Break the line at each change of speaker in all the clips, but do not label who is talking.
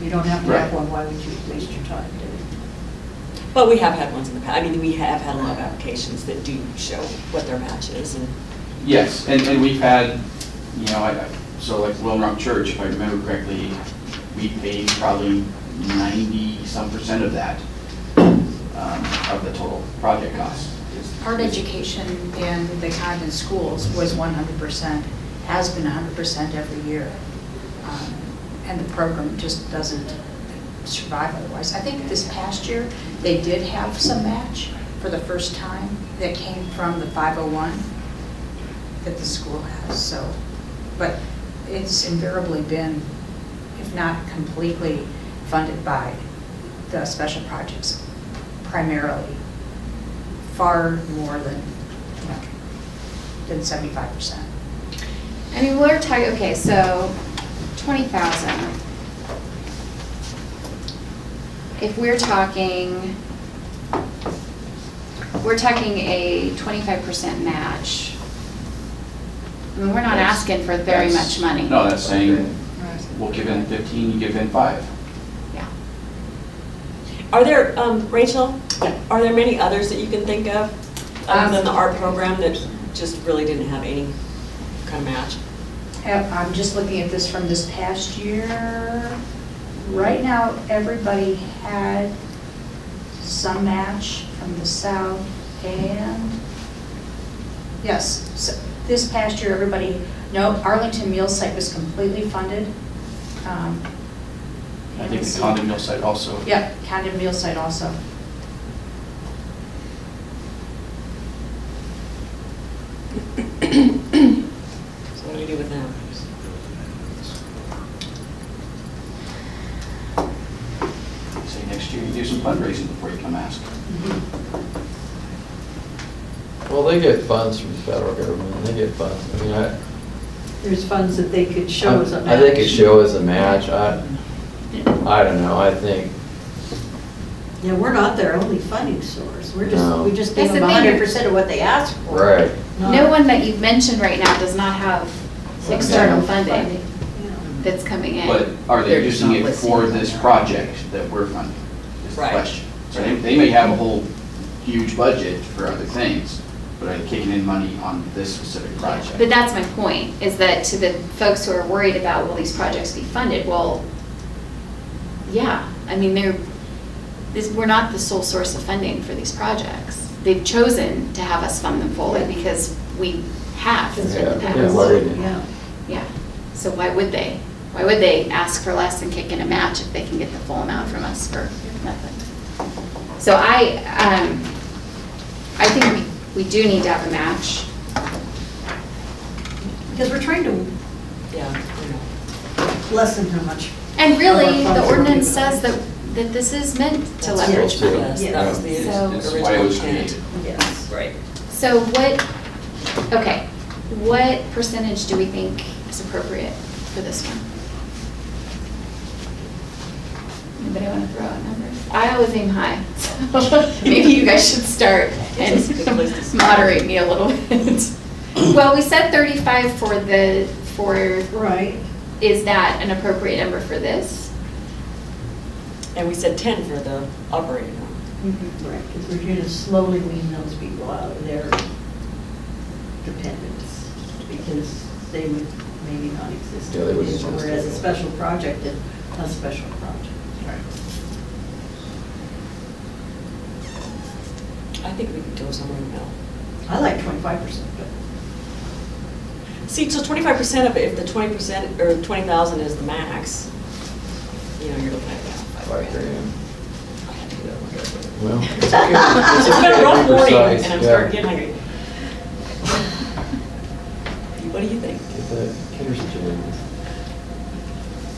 you don't have to have
Right.
one, why would you waste your time doing
But we have had ones in the past, I mean, we have had a lot of applications that do show what their match is and.
Yes, and, and we've had, you know, I, I- so like Lone Rock Church, if I remember correctly, we paid probably ninety-some percent of that, um, of the total project cost. It's-
Art education in the Condon schools was 100%, has been 100% every year. Um, And the program just doesn't survive otherwise. I think this past year, they did have some match for the first time that came from the 501 that the school has, so. But it's invariably been, if not completely, funded by the special projects primarily far more than, you know, than seventy-five percent.
I mean, we're talking, okay, so twenty thousand. If we're talking, we're talking a twenty-five percent match. I mean, we're not
That's-
asking for very
that's-
much money.
No, that's saying,
it?
we'll give in fifteen, you give in five.
Yeah.
Are there, um, Rachel, are there many others that you can think of, other than the art program that just really didn't have any kind of match?
I'm just looking at this from this past year. Right now, everybody had some match from the south and, yes, so this past year, everybody, no, Arlington Meal Site was completely funded. Um,
I think
let's
the
see.
condo mill site also.
Yep, Condon Meal Site also.
So what do we do with them?
Say next year, you do some fundraising before you come ask.
Well, they get funds from the federal government, they get funds, I mean, I.
There's funds that they could show as a
I think it
match.
show as a match, I, I don't know, I think,
Yeah, we're not their only funding source, we're just,
No.
we just give
That's the
them
thing.
hundred percent of what they ask for.
right,
not-
No one that you've mentioned right now does not have external funding
Yeah.
that's coming in.
But are
They're
they
just
using
not
it
listening
for
on
this
their own.
project that we're funding? Is the
Right.
question. So they, they may have a whole huge budget for other things, but are they kicking in money on this specific project?
But that's my point, is that to the folks who are worried about, will these projects be funded? Well, yeah, I mean, they're, this, we're not the sole source of funding for these projects. They've chosen to have us fund them fully because we have in the
Yeah, yeah,
past.
why-
Yeah.
Yeah, so why would they? Why would they ask for less and kick in a match if they can get the full amount from us for nothing? So I, um, I think we we do need to have a match.
Because we're trying to
Yeah, I know.
lessen how much,
And really,
Or
the
funds
ordinance
or whatever.
says that, that this is meant to
That's-
leverage
Yeah.
money.
Yes, that was the
So-
That's why it
original
was
intent.
created.
yes.
Right.
So what, okay, what percentage do we think is appropriate for this one? Anybody want to throw out numbers? I always aim high, so maybe you guys should start
It's a good place to
and
start.
moderate me a little bit. Well, we said 35 for the, for,
Right,
is that an appropriate number for this?
And we said ten for the operating room.
right, because we're going to slowly wean those people out of their dependence, because they would maybe not exist.
Yeah, they wouldn't exist.
Whereas a special project is a special project.
I think we could go somewhere in the middle.
I like twenty-five percent, but
See, so twenty-five percent of it, if the twenty percent, or twenty thousand is the max, you know, you're looking at about five grand.
five grand,
I had to do that one.
well.
So I'm gonna roll forty, and I'm
Yeah.
starting getting hungry. What do you think?
Get the caterers to do this.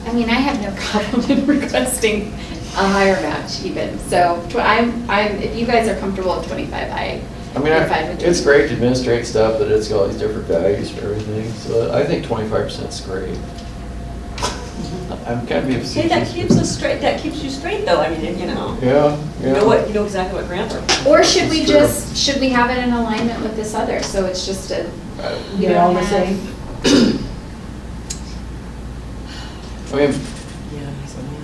I mean, I have no problem in requesting a higher match even, so tw- I'm, I'm, if you guys are comfortable with twenty-five, I,
I mean,
I'm fine
I-
with
it's
25.
great to administrate stuff, but it's got all these different values for everything, so I think twenty-five percent's great. I'm kind of obsessed.
Mm-hmm. Hey, that keeps us straight, that keeps you straight though, I mean, you know,
Yeah,
you
yeah.
know what, you know exactly what grants are.
Or should we
It's true.
just, should we have it in alignment with this other, so it's just a,
I-
You
they're all the
don't have-
same.
I mean,